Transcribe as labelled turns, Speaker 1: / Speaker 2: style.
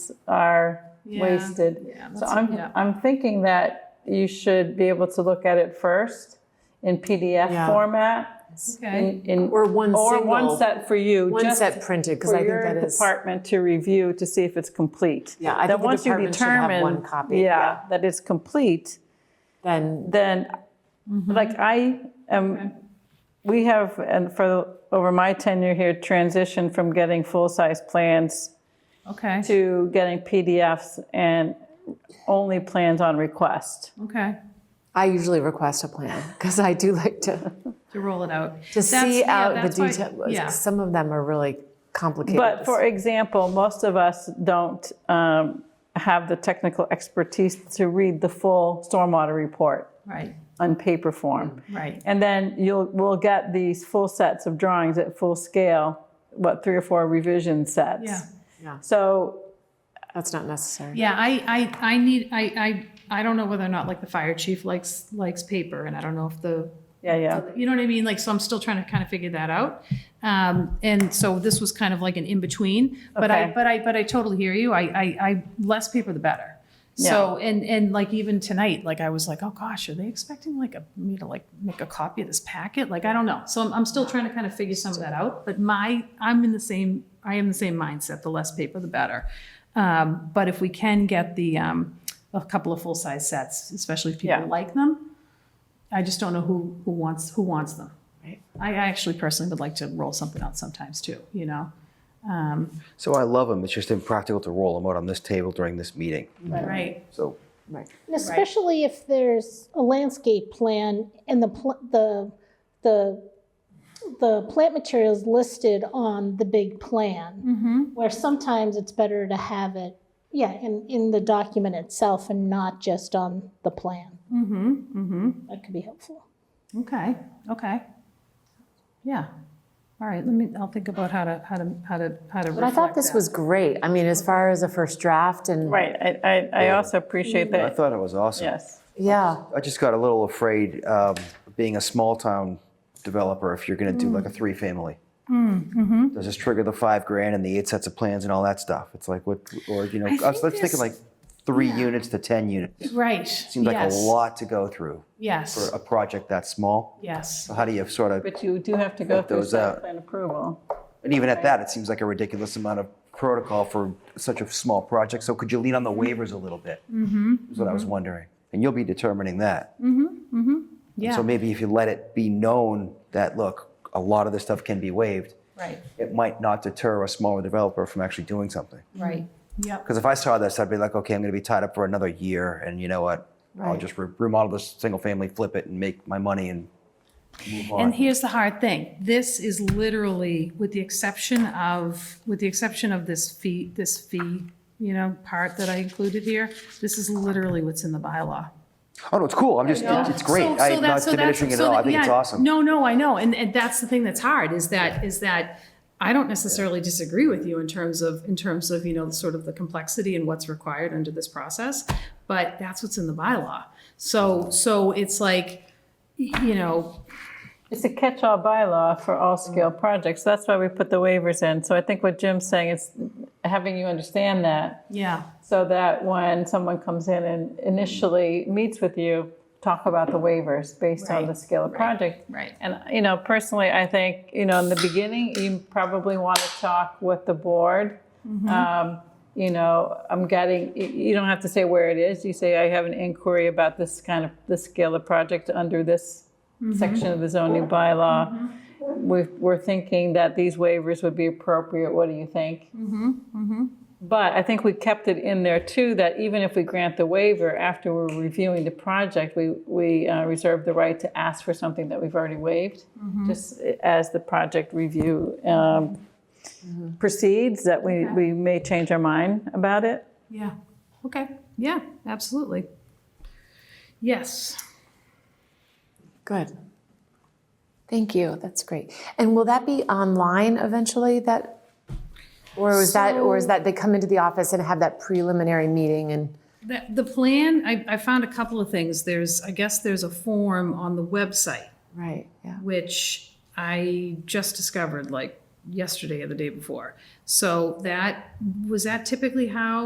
Speaker 1: minutes are
Speaker 2: Yeah.
Speaker 1: wasted.
Speaker 2: Yeah,
Speaker 1: So
Speaker 2: that's-
Speaker 1: I'm,
Speaker 2: yeah.
Speaker 1: I'm thinking that you should be able to look at it first in PDF
Speaker 3: Yeah.
Speaker 1: format.
Speaker 2: Okay.
Speaker 1: in- in-
Speaker 3: Or one
Speaker 1: Or one
Speaker 3: single-
Speaker 1: set for you.
Speaker 3: One
Speaker 1: just
Speaker 3: set printed, because I think that
Speaker 1: For your
Speaker 3: is.
Speaker 1: department to review to see if it's complete.
Speaker 3: Yeah, I
Speaker 1: Then
Speaker 3: think the
Speaker 1: once you
Speaker 3: department should have
Speaker 1: determine,
Speaker 3: one copy,
Speaker 1: Yeah,
Speaker 3: yeah.
Speaker 1: that it's complete,
Speaker 3: Then,
Speaker 1: then,
Speaker 2: Mm-hmm.
Speaker 1: like, I am, we have, and for, over my tenure here, transitioned from getting full-size plans
Speaker 2: Okay.
Speaker 1: to getting PDFs and only plans on request.
Speaker 2: Okay.
Speaker 3: I usually request a plan, because I do like to,
Speaker 2: To roll it out.
Speaker 3: to see out the
Speaker 2: Yeah.
Speaker 3: detail. Some of them are really complicated.
Speaker 1: But for example, most of us don't um, have the technical expertise to read the full stormwater report
Speaker 2: Right.
Speaker 1: on paper form.
Speaker 2: Right.
Speaker 1: And then you'll, we'll get these full sets of drawings at full scale, what, three or four revision sets.
Speaker 2: Yeah.
Speaker 1: So,
Speaker 3: That's not necessary.
Speaker 2: Yeah. I, I, I need, I, I, I don't know whether or not like the fire chief likes, likes paper and I don't know if the,
Speaker 1: yeah, yeah,
Speaker 2: you know what I mean? Like, so I'm still trying to kind of figure that out. Um, and so this was kind of like an in-between, but I,
Speaker 1: Okay.
Speaker 2: but I, but I totally hear you. I, I, I, less paper the better. So, and, and like even tonight, like I was like, oh gosh, are they expecting like a, me to like make a copy of this packet? Like, I don't know. So I'm, I'm still trying to kind of figure some of that out, but my, I'm in the same, I am the same mindset, the less paper, the better. Um, but if we can get the, um, a couple of full-size sets, especially if people
Speaker 1: Yeah.
Speaker 2: like them, I just don't know who, who wants, who wants them.
Speaker 3: Right.
Speaker 2: I actually personally would like to roll something out sometimes too, you know?
Speaker 4: So I love them. It's just impractical to roll them out on this table during this meeting.
Speaker 2: Right.
Speaker 4: So
Speaker 5: And Especially if there's a landscape plan and the, pl- the, the, the plant materials listed on the big plan. Where sometimes it's better to have it, yeah, in, in the document itself and not just on the plan. Mm-hmm, mm-hmm. That could be helpful.
Speaker 2: Okay, okay. Yeah. All right, let me, I'll think about how to, how to, how to, how to
Speaker 3: But I thought
Speaker 2: reflect
Speaker 3: this
Speaker 2: that.
Speaker 3: was great. I mean, as far as a first draft and,
Speaker 1: right. I- I, I also
Speaker 2: Mm.
Speaker 1: appreciate
Speaker 4: I
Speaker 1: that,
Speaker 4: thought it was awesome.
Speaker 1: yes.
Speaker 3: yeah,
Speaker 4: I just got a little afraid um, being a small town developer if you're going to do like a three family. Does this trigger the five grand and the eight sets of plans and all that stuff? It's like what, or you know, I, was
Speaker 2: think
Speaker 4: let's thinking like
Speaker 2: this-
Speaker 4: three units to ten units.
Speaker 2: Right.
Speaker 4: Seems like
Speaker 2: yes,
Speaker 4: a lot to go through for
Speaker 2: Yes,
Speaker 4: a project that small.
Speaker 2: yes.
Speaker 4: So how do you sort of?
Speaker 1: But you do have to go through
Speaker 4: those
Speaker 1: site
Speaker 4: out.
Speaker 1: plan approval.
Speaker 4: And even at that, it seems like a ridiculous amount of protocol for such a small project. So could you lean on the waivers a little bit? Mm-hmm. Is what I was wondering. And you'll be determining that. Mm-hmm. Mm-hmm.
Speaker 2: Yeah.
Speaker 4: So maybe if you let it be known that, look, a lot of this stuff can be waived,
Speaker 2: Right,
Speaker 4: it might not deter a smaller developer from actually doing something.
Speaker 2: right. Yep,
Speaker 4: Because if I saw this, I'd be like, okay, I'm going to be tied up for another year. And you know what? I'll
Speaker 3: Right.
Speaker 4: just re- remodel this single family, flip it, and make my money and move on.
Speaker 2: And here's the hard thing. This is literally, with the exception of, with the exception of this fee, this fee, you know, part that I included here, this is literally what's in the bylaw.
Speaker 4: oh, no, it's cool. I'm just, it's, it's great.
Speaker 2: So- so
Speaker 4: I'm
Speaker 2: that-
Speaker 4: not
Speaker 2: so that's-
Speaker 4: diminishing it at
Speaker 2: so
Speaker 4: all. I
Speaker 2: that-
Speaker 4: think it's
Speaker 2: yeah,
Speaker 4: awesome.
Speaker 2: No, no, I know, and, and that's the thing that's hard, is that, is that I don't necessarily disagree with you in terms of, in terms of, you know, sort of the complexity and what's required under this process, but that's what's in the bylaw. So, so it's like, y- you know,
Speaker 1: It's a catch-all bylaw for all
Speaker 2: Mm.
Speaker 1: scale projects. That's why we put the waivers in. So I think what Jim's saying is having you understand that
Speaker 2: yeah,
Speaker 1: so that when someone comes in and initially meets with you, talk about the waivers based on the
Speaker 2: Right,
Speaker 1: scale of project.
Speaker 2: right.
Speaker 1: And, you know, personally, I think, you know, in the beginning, you probably want to talk with the board. Um, You know, I'm getting, y- you don't have to say where it is. You say, I have an inquiry about this kind of, this scale of project under this section of the zoning bylaw. We've, we're thinking that these waivers would be appropriate. What do you think? But I think we kept it in there too, that even if we grant the waiver, after we're reviewing the project, we, we uh, reserve the right to ask for something that we've already waived, just as the project review um, proceeds, that we, we may change our mind about it.
Speaker 2: yeah, okay, yeah, absolutely. Yes.
Speaker 3: good. Thank you, that's great. And will that be online eventually, that, or is that, or is that they come into the office and have that preliminary meeting and?
Speaker 2: The, the plan, I, I found a couple of things. There's, I guess there's a form on the website,
Speaker 3: Right, yeah.
Speaker 2: which I just discovered like yesterday or the day before. So that, was that typically how